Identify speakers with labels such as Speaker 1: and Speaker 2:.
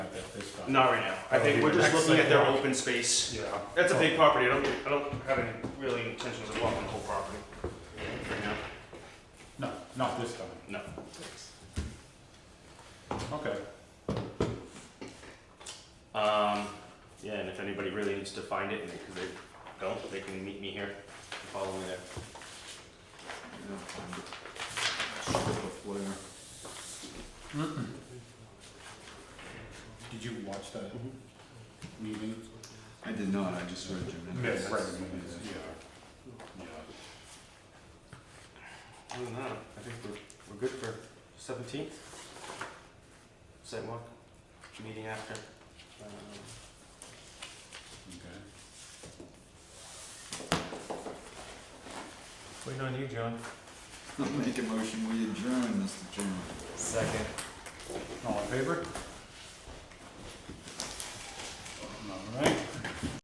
Speaker 1: stuff.
Speaker 2: Not right now. I think we're just looking at their open space.
Speaker 1: Yeah.
Speaker 2: That's a big property. I don't, I don't have any really intentions of walking the whole property right now.
Speaker 1: No, not this time.
Speaker 2: No.
Speaker 1: Okay.
Speaker 2: Um, yeah, and if anybody really needs to find it, and because they don't, they can meet me here, and follow me there.
Speaker 3: Yeah, find it. Strip of flare.
Speaker 1: Did you watch that meeting?
Speaker 3: I did not, I just heard your minutes.
Speaker 1: Right,
Speaker 3: Yeah.
Speaker 1: yeah. Yeah.
Speaker 2: Other than that, I think we're, we're good for seventeenth. Sidewalk, meeting after. Um,
Speaker 1: Okay.
Speaker 2: Waiting on you, John.
Speaker 3: I'll make a motion, we adjourn, Mr. Chairman.
Speaker 2: Second.
Speaker 1: All in favor? All right.